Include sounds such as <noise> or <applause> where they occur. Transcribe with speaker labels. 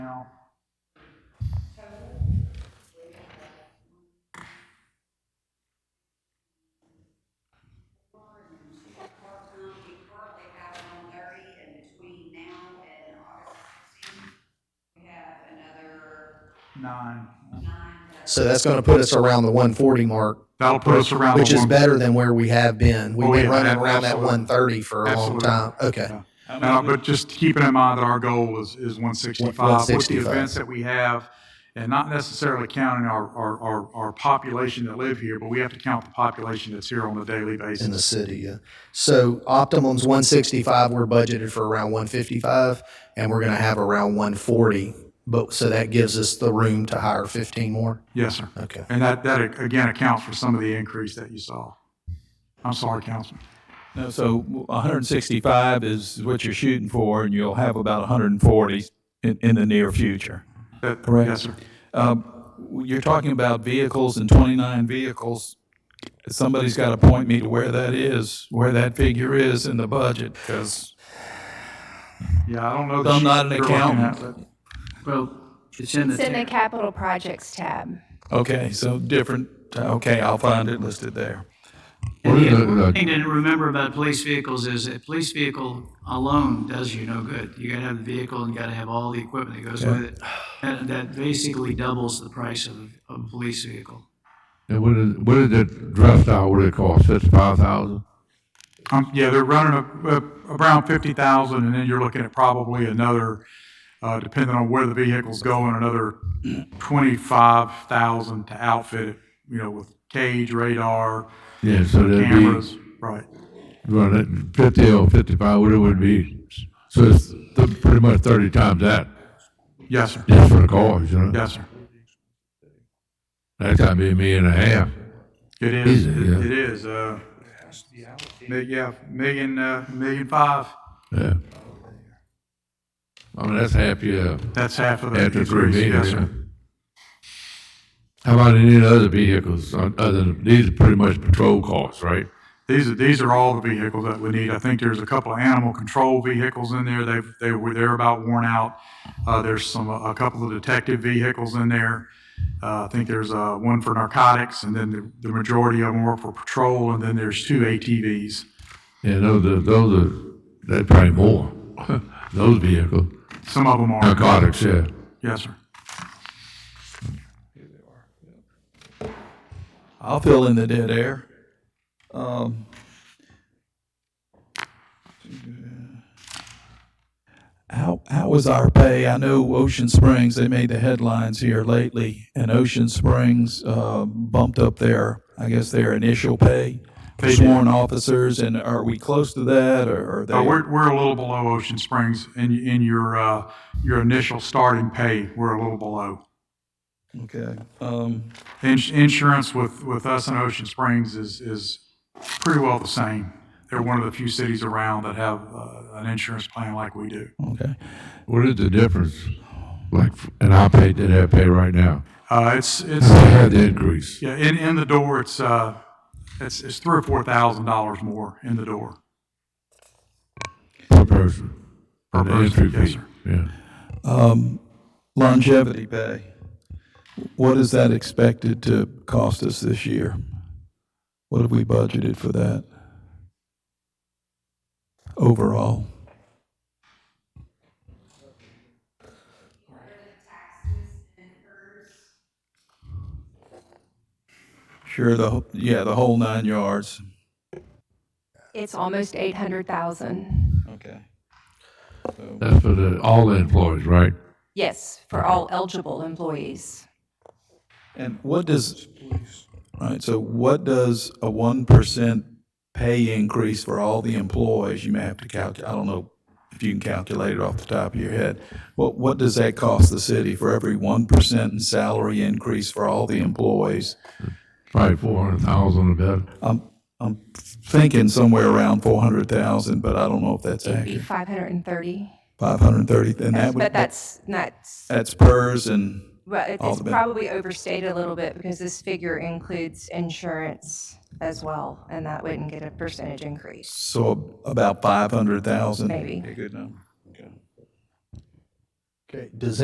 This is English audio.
Speaker 1: nine.
Speaker 2: So that's going to put us around the 140 mark,
Speaker 1: That'll put us around. the
Speaker 2: which is
Speaker 1: one-
Speaker 2: better than where we have been. We've
Speaker 1: Oh,
Speaker 2: been
Speaker 1: yeah,
Speaker 2: running
Speaker 1: ab-
Speaker 2: around that
Speaker 1: absolutely.
Speaker 2: 130 for a long
Speaker 1: Absolutely.
Speaker 2: time. Okay.
Speaker 1: No, but just keeping in mind that our goal is, is one sixty-five with the
Speaker 2: 165.
Speaker 1: events that we have, and not necessarily counting our, our, our, our population that live here, but we have to count the population that's here on a daily
Speaker 2: In the
Speaker 1: basis.
Speaker 2: city, yeah. So optimum's 165. We're budgeted for around 155, and we're going to have around 140. But so that gives us the room to hire 15 more.
Speaker 1: Yes, sir.
Speaker 2: Okay.
Speaker 1: And that, that again accounts for some of the increase that you saw. I'm sorry, Councilman.
Speaker 3: No, So 165 is what you're shooting for, and you'll have about 140 in, in the near future.
Speaker 1: That-
Speaker 3: Correct.
Speaker 1: Yes, sir.
Speaker 3: You're talking about vehicles and 29 vehicles. Somebody's got to point me to where that is, where that figure is in the budget, because
Speaker 1: Yeah, I don't know. the
Speaker 3: I'm
Speaker 1: sheet
Speaker 3: not an
Speaker 1: you're looking at,
Speaker 3: accountant.
Speaker 1: but-
Speaker 4: Well, it's in the,
Speaker 5: It's in the
Speaker 4: ten-
Speaker 5: capital projects tab.
Speaker 3: Okay, so different, okay, I'll find it listed there.
Speaker 4: and the other thing to remember about police vehicles is a police vehicle alone does you no good. You gotta have the vehicle and you gotta have all the equipment that goes with it. That, that basically doubles the price of, of a police vehicle.
Speaker 6: And what is, what is that dress style, what it cost, fifty-five thousand?
Speaker 1: Um, yeah, they're running a- a- around fifty thousand, and then you're looking at probably another, uh, depending on where the vehicle's going, another twenty-five thousand to outfit it, you know, with cage, radar,
Speaker 6: Yeah, so that'd be,
Speaker 1: cameras, right?
Speaker 6: run it fifty or fifty-five, what it would be. So it's th- pretty much thirty times that,
Speaker 1: Yes, sir.
Speaker 6: just for the cars, you know?
Speaker 1: Yes, sir.
Speaker 6: That's gotta be a million and a half.
Speaker 1: It is,
Speaker 6: Easy, yeah.
Speaker 1: it it is, uh, mi- yeah, million, uh, million five,
Speaker 6: Yeah. I mean, that's half your,
Speaker 1: that's half of the
Speaker 6: after three
Speaker 1: increase, yes,
Speaker 6: meters.
Speaker 1: sir.
Speaker 6: How about any other vehicles, on- other than, these are pretty much patrol cars, right?
Speaker 1: These are, these are all the vehicles that we need. I think there's a couple of animal control vehicles in there. They've, they were, they're about worn out. Uh, there's some, a couple of detective vehicles in there. Uh, I think there's, uh, one for narcotics and then the, the majority of them were for patrol and then there's two ATVs.
Speaker 6: And those are, those are, that's probably more, <laughs> those vehicles.
Speaker 1: Some of them are.
Speaker 6: Narcotics, yeah.
Speaker 1: Yes, sir.
Speaker 3: I'll fill in the dead air. Um, How, how was our pay? I know Ocean Springs, they made the headlines here lately, and Ocean Springs uh, bumped up their, I guess, their initial pay for
Speaker 1: They did.
Speaker 3: sworn officers, and are we close to that, or are
Speaker 1: Uh,
Speaker 3: they?
Speaker 1: we're, we're a little below Ocean Springs in, in your, uh, your initial starting pay. We're a little below.
Speaker 3: Okay. um,
Speaker 1: Ins- Insurance with, with us in Ocean Springs is, is pretty well the same. They're one of the few cities around that have uh, an insurance plan like we do.
Speaker 3: Okay.
Speaker 6: What is the difference, like, and I pay that I pay right now?
Speaker 1: Uh, It's, it's,
Speaker 6: I had the increase.
Speaker 1: yeah, in, in the door, it's, uh, it's, it's three or four thousand dollars more in the door.
Speaker 6: Per person.
Speaker 1: Per
Speaker 6: And the
Speaker 1: person,
Speaker 6: entry
Speaker 1: yes,
Speaker 6: fee, Yeah.
Speaker 3: Longevity pay. What is that expected to cost us this year? What have we budgeted for that? Overall? Sure, the, wh- yeah, the whole nine yards.
Speaker 5: It's almost 800,000.
Speaker 3: Okay.
Speaker 6: That's for the, all the employees, right?
Speaker 5: Yes, for all eligible employees.
Speaker 3: And what does, all right, so what does a one percent pay increase for all the employees, you may have to calculate, I don't know if you can calculate it off the top of your head. What, what does that cost the city for every one percent in salary increase for all the employees?
Speaker 6: Probably four hundred thousand or better.
Speaker 3: I'm, I'm thinking somewhere around four hundred thousand, but I don't know if that's
Speaker 5: Be
Speaker 3: accurate.
Speaker 5: 530.
Speaker 3: Five hundred and thirty, and that would,
Speaker 5: But that's not,
Speaker 3: that's PERS and,
Speaker 5: well, it-
Speaker 3: All
Speaker 5: it's
Speaker 3: the ben-
Speaker 5: probably overstated a little bit because this figure includes insurance as well, and that wouldn't get a percentage increase,
Speaker 3: so about five hundred thousand.
Speaker 5: maybe.
Speaker 3: good number.
Speaker 2: Okay. Does